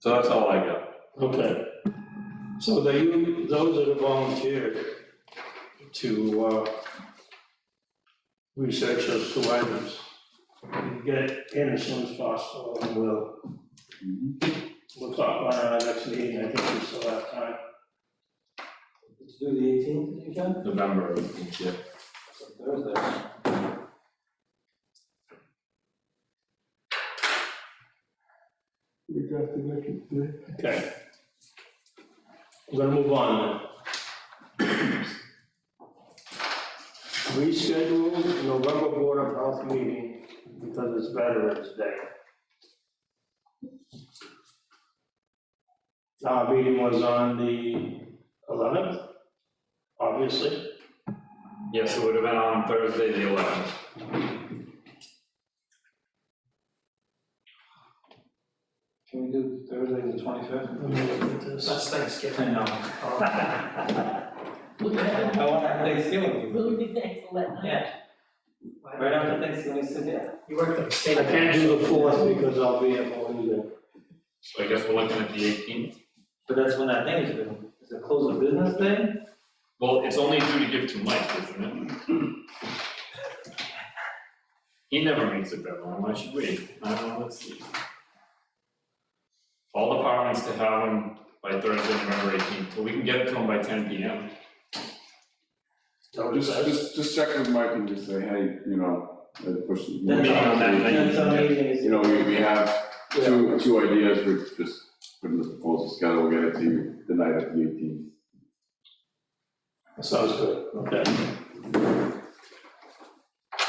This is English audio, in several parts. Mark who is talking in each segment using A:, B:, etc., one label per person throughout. A: So that's all I got.
B: Okay. So they, u- those that have volunteered to, uh, research those two items, get it in as soon as possible, and we'll,
A: Mm-hmm.
B: we'll talk about it at our next meeting, I think we still have time.
C: Let's do the eighteenth, you can,
A: November, eighteenth, yeah.
C: It's a Thursday.
D: We got the wicked thing.
B: Okay. We're gonna move on then. Reschedule the November Board of Health meeting because it's Veterans Day. Our meeting was on the eleventh, obviously.
A: Yes, it would have been on Thursday, the eleventh.
C: Can we do Thursday the twenty-fifth?
E: That's Thanksgiving.
C: know. I want to have Thanksgiving,
F: Will be thankful that night.
C: yeah, right after Thanksgiving, we sit here.
E: You work for the
B: I
E: state.
B: can't do the fourth because I'll be at Melinda.
A: So I guess we're looking at the eighteenth.
C: But that's when that thing is due, is it close of business day?
A: Well, it's only due to give to Mike, isn't it? He never makes a deadline, why should we? I don't know, let's see. All departments to have them by Thursday, November eighteenth, but we can get it to them by ten P M.
B: Don't
D: Just,
B: do that.
D: just, just check with Mike and just say, hey, you know, uh, push. the-
C: That's-
A: meeting on that night.
C: That's our meeting is-
D: You know, we, we have two, two ideas, we're just putting the proposals together, we'll get it to you the night of the eighteenth.
B: Sounds good, okay.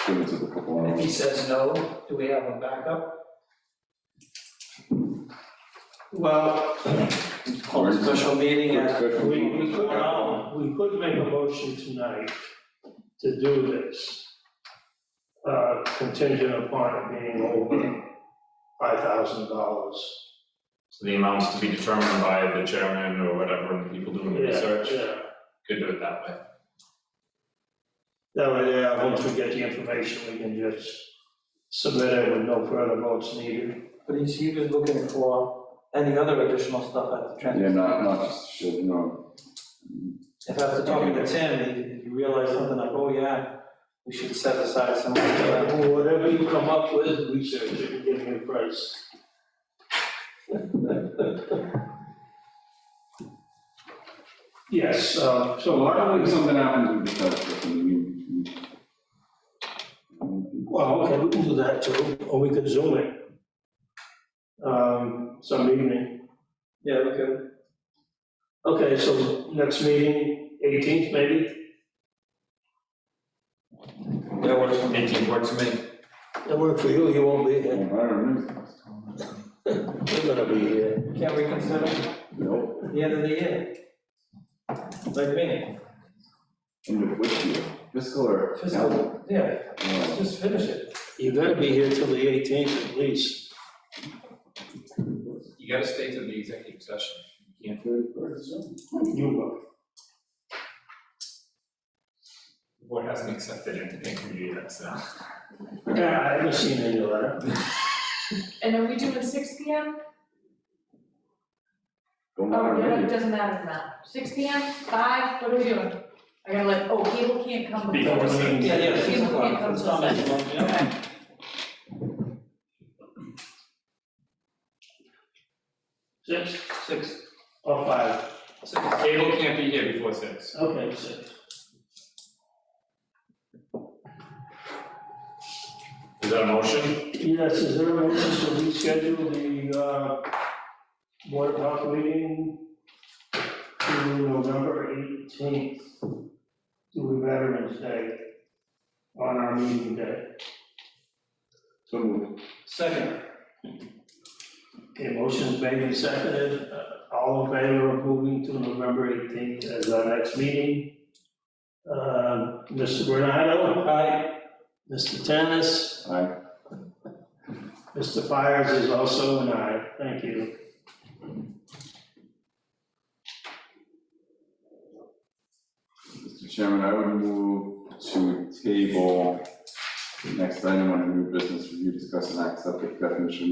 D: Give it to the couple
E: If he
D: hours.
E: says no, do we have a backup?
C: Well, call a special meeting
D: Quick
C: at.
D: session.
B: We, we could,
C: Wow.
B: we could make a motion tonight to do this. Uh, contingent upon it being over five thousand dollars.
A: So the amounts to be determined by the chairman or whatever, and the people doing the research,
B: Yeah,
A: could do it that way.
B: that way, yeah, once we get the information, we can just submit it with no further votes needed.
C: But he's, he was looking for any other additional stuff at the transfer.
D: Yeah, not, not just, shit, you know,
C: If after talking to Tim, you realize something like, oh yeah, we should set aside some money for that.
B: Whatever you come up with, research it and give me a price. Yes, uh, so why don't we
D: if something happens, we just have to, I mean, we-
B: Well, okay, we can do that too, or we could zoom it. Um, some evening.
C: Yeah, okay.
B: Okay, so next meeting, eighteenth maybe,
C: That works for me.
A: Eighteenth works for me.
B: that work for you, you won't be
D: I
B: here,
D: don't know.
B: you're gonna be here.
C: Can't we consider
D: Nope,
C: the end of the year? Like me,
D: end of which year, fiscal or?
C: fiscal, yeah,
D: Yeah.
C: let's just finish it.
B: You gotta be here till the eighteenth at least.
A: You gotta stay to the executive session, you can't
B: You will.
A: The board hasn't accepted anything from you yet, so.
B: Yeah, I haven't seen any letter.
F: And are we doing six P M?
D: Don't
F: Oh,
D: matter,
F: no,
D: really.
F: it doesn't matter now. Six P M, five, what are we doing? I gotta let, oh, cable can't come before.
A: Before six.
C: Yeah, yeah, six
F: People can't
C: o'clock,
F: come
C: it's
F: till
C: not
F: six.
C: that long, yeah.
F: Okay.
B: Six
C: Six,
B: or five,
C: six.
A: Cable can't be here before six.
B: okay, six.
A: Is that a motion?
B: Yes, is there a motion to reschedule the, uh, board of health meeting to November eighteenth, to Veterans Day, on our meeting day?
D: So moved.
C: Second,
B: Okay, motion's made and seconded, Uh, all in favor of moving to November eighteenth as our next meeting? Uh, Mr. Bernardo,
C: aye,
B: Mr. Tennis,
D: Aye.
B: Mr. Fires is also an aye, thank you.
D: Mr. Chairman, I would move to table next item on a new business review, discuss and accept the definition